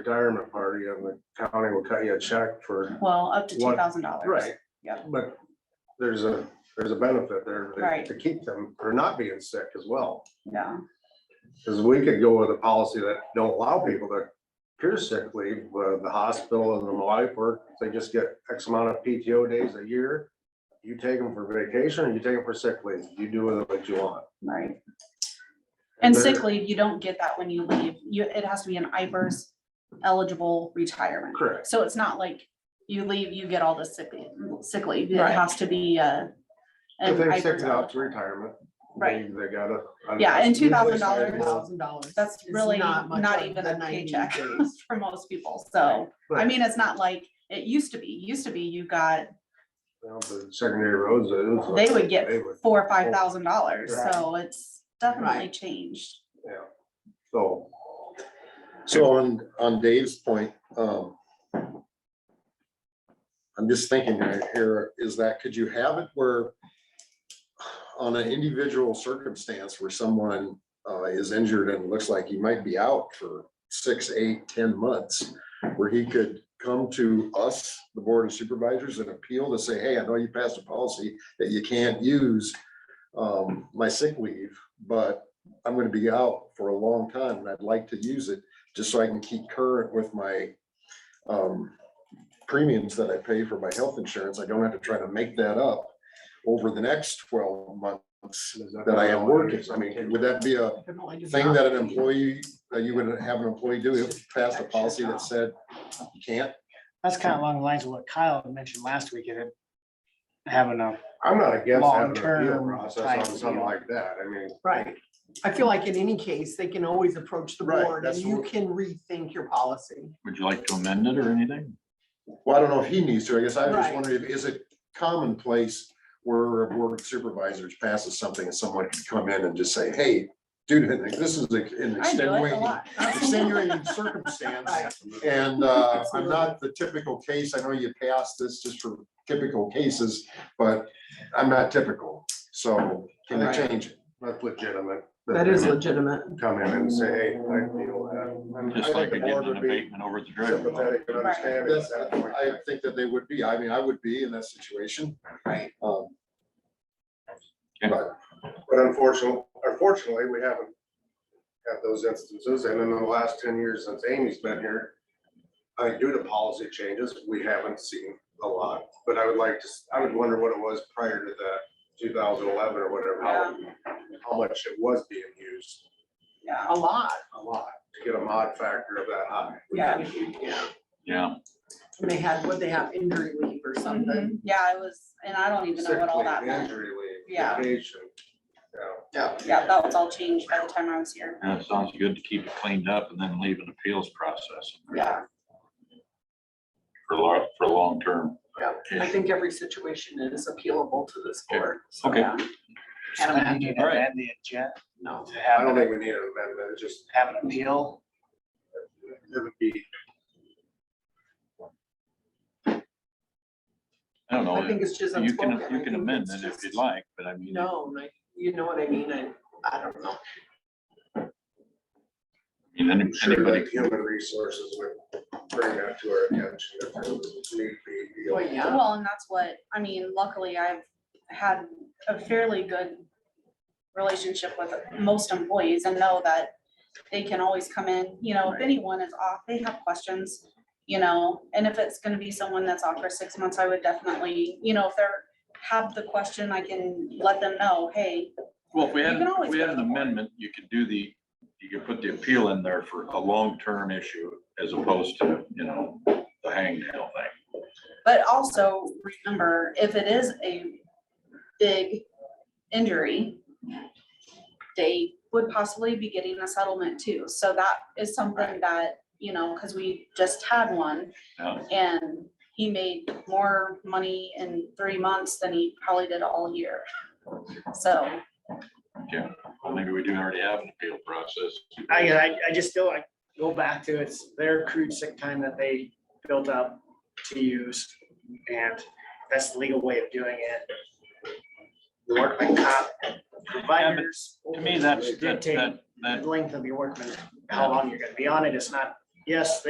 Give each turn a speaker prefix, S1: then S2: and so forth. S1: retirement party and the county will cut you a check for,
S2: Well, up to two
S1: What-
S2: thousand dollars.
S1: right?
S2: Yep.
S1: But there's a, there's a benefit there
S2: Right.
S1: to- to keep them, or not being sick as well.
S2: Yeah,
S1: Cause we could go with a policy that don't allow people to cure sick leave, but the hospital and the life work, they just get X amount of PTO days a year. You take them for vacation or you take them for sick leave, you do with it what you want.
S2: right. And
S1: there-
S2: sick leave, you don't get that when you leave. You, it has to be an IPERS eligible retirement.
S1: Correct.
S2: So it's not like you leave, you get all the sick, leave- sick leave. It
S3: Right.
S2: has to be a.
S1: If
S2: an
S1: they're
S2: IPERS
S1: sick out to
S2: eligible.
S1: retirement. they-
S2: Right.
S1: They gotta.
S2: Yeah, and two thousand
S1: Usually it's-
S2: dollars,
S3: Thousand dollars.
S2: that's really not even a paycheck for most people. So, I
S1: But-
S2: mean, it's not like it used to be. Used to be you got,
S1: Well, the Secondary roads. it was-
S2: they would get
S1: they would,
S2: four or five thousand dollars.
S1: Right.
S2: So it's definitely
S3: Right.
S2: changed.
S1: yeah. So,
S4: So on, on Dave's point, um. I'm just thinking right here, is that, could you have it where? On an individual circumstance where someone, uh, is injured and looks like he might be out for six, eight, ten months. Where he could come to us, the Board of Supervisors, and appeal to say, hey, I know you passed a policy that you can't use. Um, my sick leave, but I'm gonna be out for a long time and I'd like to use it just so I can keep current with my um, premiums that I pay for my health insurance. I don't have to try to make that up over the next twelve months
S1: is
S4: that I am working. I mean, would that be a thing that an employee, that you would have an employee do, if passed a policy that said you can't?
S5: That's kind of along the lines of what Kyle had mentioned last week, it having a,
S1: I'm not against having an appeal
S5: Long-term
S1: process
S5: type
S1: on something
S5: deal.
S1: like that. I mean,
S3: Right. I feel like in any case, they can always approach the
S4: Right,
S3: board and
S4: that's
S3: you
S4: what-
S3: can rethink your policy.
S6: Would you like to amend it or anything?
S4: Well, I don't know if he needs to. I guess I was just
S3: Right.
S4: wondering, if is it commonplace where a board of supervisors passes something and someone can come in and just say, hey, dude, this is
S2: I
S4: an
S2: do it a
S4: extenuating,
S2: lot.
S4: extenuating circumstance.
S3: Right.
S4: And uh, I'm not the typical case. I know you passed this just for typical cases, but I'm not typical. So can you change it?
S1: that's legitimate.
S3: That is legitimate.
S1: Come in and say, hey, I feel that. And I
S6: Just
S1: think
S6: like
S1: the
S6: getting
S1: board
S6: an
S1: would be
S6: abatement over the driveway.
S1: Sympathetic and understanding.
S4: That's-
S1: at that point.
S4: I think that they would be. I mean, I would be in that situation.
S3: Right.
S4: Um,
S1: But unfortunately, unfortunately, we haven't had those instances. And in the last ten years since Amy's been here, I think due to policy changes, we haven't seen a lot. But I would like to, s- I would wonder what it was prior to the two thousand eleven or whatever, how, how much it was being used.
S2: Yeah.
S3: A lot.
S1: A lot. To get a mod factor of that high.
S2: Yeah.
S6: Yeah,
S3: And they had, what they have injury leave or something.
S2: Mhm. Yeah, it was, and I don't even know what
S1: Sick
S2: all
S1: leave,
S2: that meant.
S1: Injury leave.
S2: Yeah.
S1: Vacation.
S2: Mm-hmm.
S1: Yeah.
S2: Yeah, that was all changed by the time I was here.
S6: yeah, it sounds good to keep it cleaned up and then leave an appeals process
S2: Yeah,
S6: for long, for long term.
S3: I think every situation is appealable to this board. so,
S6: Okay.
S3: yeah.
S5: kind of
S3: And,
S5: needed
S6: All right.
S5: to the agenda,
S3: no,
S5: to
S1: I
S5: have,
S1: don't
S5: an-
S1: think we need an amendment, it's just,
S5: have an appeal.
S1: it would be,
S6: I don't
S3: I
S6: know,
S3: think it's just.
S6: you
S3: unspoken.
S6: can,
S3: I
S6: you
S3: think
S6: can amend
S3: it's
S6: it if you'd
S3: just
S6: like, but I mean, I
S3: No, like, you know what I mean? I, I don't know.
S6: mean, any-
S1: I'm sure
S6: anybody,
S1: that human resources would bring that to our attention if there was need be. you know.
S3: Well, yeah.
S2: well, and that's what, I mean, luckily I've had a fairly good relationship with most employees and know that they can always come in, you know, if anyone is off, they have questions, you know, and if it's gonna be someone that's off for six months, I would definitely, you know, if they're have the question, I can let them know, hey,
S6: well, if we
S2: You
S6: had,
S2: can
S6: if
S2: always
S6: we
S2: go
S6: had an
S2: to the board.
S6: amendment, you could do the, you could put the appeal in there for a long-term issue as opposed to, you know, the hangnail thing.
S2: But also remember, if it is a big injury, they would possibly be getting a settlement too. So that is something that, you know, because we just had one
S6: Yeah.
S2: and he made more money in three months than he probably did all year. So,
S6: Well, maybe we do already have an appeal process.
S5: I, uh, I, I just still, I go back to it's their accrued sick time that they built up to use. And that's the legal way of doing it. The workman comp providers.
S6: To me, that's, that,
S5: dictate
S6: that, that
S5: the length of your workman, how long you're gonna be on it. It's not, yes, they